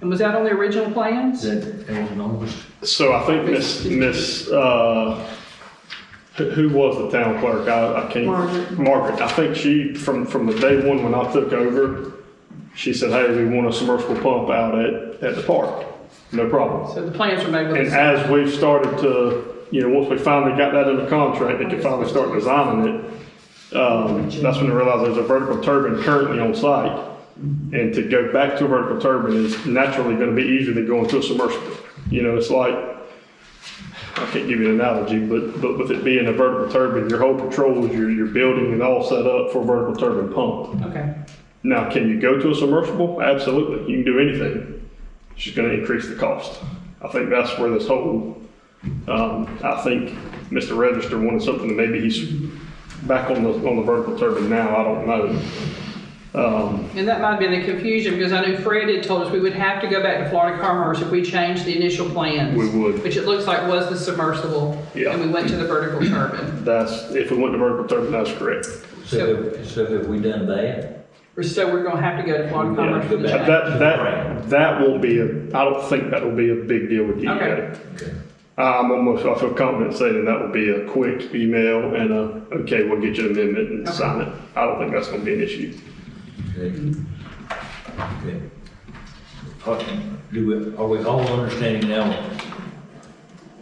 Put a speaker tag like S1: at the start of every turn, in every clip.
S1: And was that on the original plans?
S2: That, that was an August.
S3: So I think Miss, Miss, uh, who- who was the town clerk? I, I can't.
S1: Margaret.
S3: Margaret, I think she, from, from the day one when I took over, she said, hey, we want a submersible pump out at, at the park. No problem.
S1: So the plans were made
S3: And
S1: with,
S3: as we've started to, you know, once we finally got that under contract, they could finally start designing it. Um, that's when I realized there's a vertical turbine currently on site. And to go back to a vertical turbine is naturally gonna be easier than going to a submersible. You know, it's like, I can't give you an analogy, but, but with it being a vertical turbine, your whole controls, your, your building is all set up for a vertical turbine pump.
S1: okay.
S3: Now, can you go to a submersible? Absolutely, you can do anything. It's just going to increase the cost. I think that's where this whole, um, I think Mr. Register wanted something that maybe he's back on the, on the vertical turbine now, I don't know. Um,
S1: And that might have been the confusion, because I know Fred had told us we would have to go back to Florida Commerce if we changed the initial plans.
S3: We would.
S1: Which it looks like was the submersible.
S3: Yeah.
S1: And we went to the vertical turbine.
S3: that's, if we went to vertical turbine, that's correct.
S2: So, have- so have we done that?
S1: We're- So we're gonna have to go to Florida Commerce for the
S3: Yeah,
S1: change.
S3: That, that, that won't be, a- I don't think that'll be a big deal with
S1: Okay.
S3: DEA. I'm almost, I feel confident saying that will be a quick email and a, okay, we'll get you an amendment and sign it. I don't think that's gonna be an issue.
S2: Okay. Okay. Are- Do we, are we all understanding now,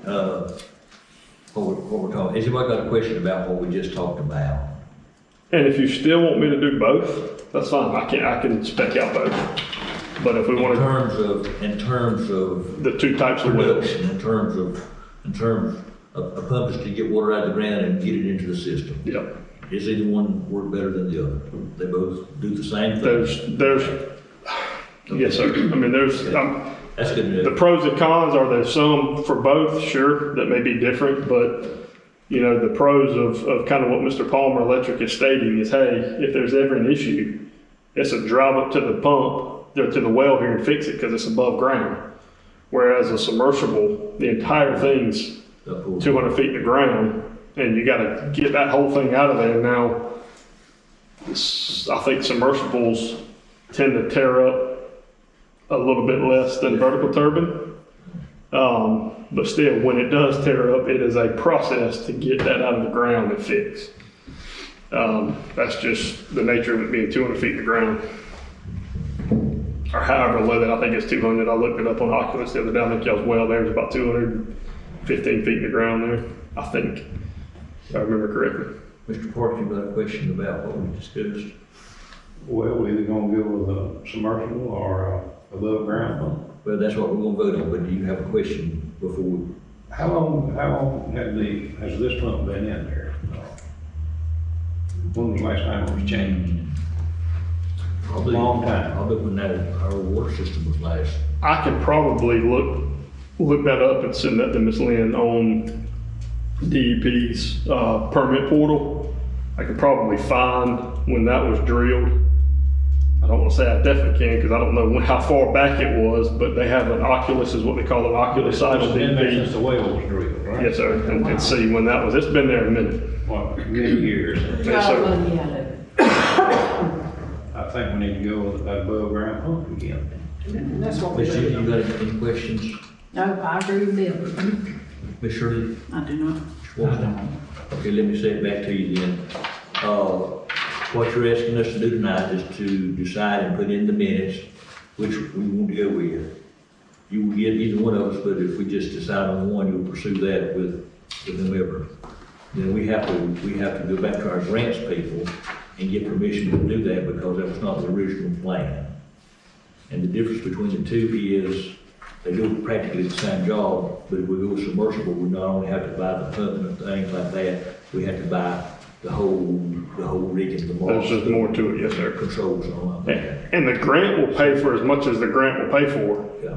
S2: uh, what we're, what we're talking, has anybody got a question about what we just talked about?
S3: And if you still want me to do both, that's fine, I can, I can spec out both. But if we
S2: In
S3: wanna,
S2: terms of, in terms of
S3: the two types of wells,
S2: production, in terms of, in terms of, of pumps to get water out of the ground and get it into the system?
S3: yeah.
S2: Is either one work better than the other? They both do the same thing?
S3: There's, there's, yes, sir, I mean, there's, I'm,
S2: That's good
S3: The
S2: news.
S3: pros and cons, are there some for both? Sure, that may be different, but, you know, the pros of, of kind of what Mr. Palmer Electric is stating is, hey, if there's ever an issue, it's a drive up to the pump, or to the well here and fix it because it's above ground. Whereas a submersible, the entire thing's
S2: Uh, cool.
S3: two hundred feet to ground, and you gotta get that whole thing out of there now. s- I think submersibles tend to tear up a little bit less than vertical turbine. Um, but still, when it does tear up, it is a process to get that out of the ground and fix. Um, that's just the nature of it being two hundred feet to ground. Or however low that, I think it's two hundred, I looked it up on Oculus the other day, I think y'all's well there's about two hundred 15 feet in the ground there, I think, if I remember correctly.
S2: Mr. Parks, you got a question about what we discussed?
S4: Well, we're either gonna go with a submersible or a above ground pump.
S2: Well, that's what we're gonna vote on, but do you have a question before we?
S4: How long, how long have the, has this pump been in there? When was the last time it was changed?
S2: Probably-
S4: Long time.
S2: Probably when that, our water system was last,
S3: I can probably look, look that up and send that to Ms. Lynn on DEP's uh, permit portal. I could probably find when that was drilled. I don't want to say I definitely can because I don't know when- how far back it was, but they have an Oculus, is what they call an Oculus site
S4: It's
S3: on
S4: been there since
S3: DEP.
S4: the well was drilled, right?
S3: Yes, sir, and and see when that was. It's been there a minute.
S4: What, many years?
S3: Yes, sir.
S5: Probably out of
S4: I think we need to go with that above ground pump again.
S1: And that's what we
S2: Miss Judy,
S1: did.
S2: you got any questions?
S5: No, I agree with Bill.
S2: Miss Shirley?
S5: I do not.
S2: Wilson? Okay, let me say it back to you then. Uh, what you're asking us to do tonight is to decide and put in the minutes which we want to go with. You will get either one of us, but if we just decide on one, you'll pursue that with, with whomever. Then we have to, we have to go back to our grants people and get permission to do that because that was not the original plan. And the difference between the two is, they do practically the same job, but if we go submersible, we not only have to buy the pump and things like that, we have to buy the whole, the whole rig and the
S3: There's just
S2: mast,
S3: more to it, yes,
S2: their
S3: sir.
S2: controls and all that.
S3: And the grant will pay for as much as the grant will pay for.
S2: Yeah.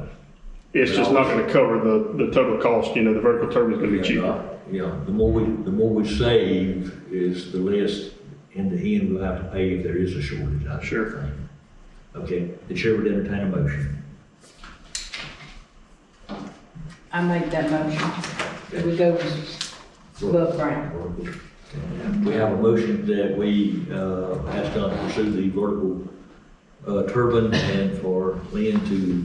S3: It's just not gonna cover the, the total cost, you know, the vertical turbine's gonna be cheaper.
S2: Yeah, the more we, the more we save is the less in the end we'll have to pay if there is a shortage, I
S3: Sure.
S2: sure think. Okay, the chair would entertain a motion.
S5: I made that motion. That we go with above ground.
S2: We have a motion that we, uh, ask Don to pursue the vertical, uh, turbine and for Lynn to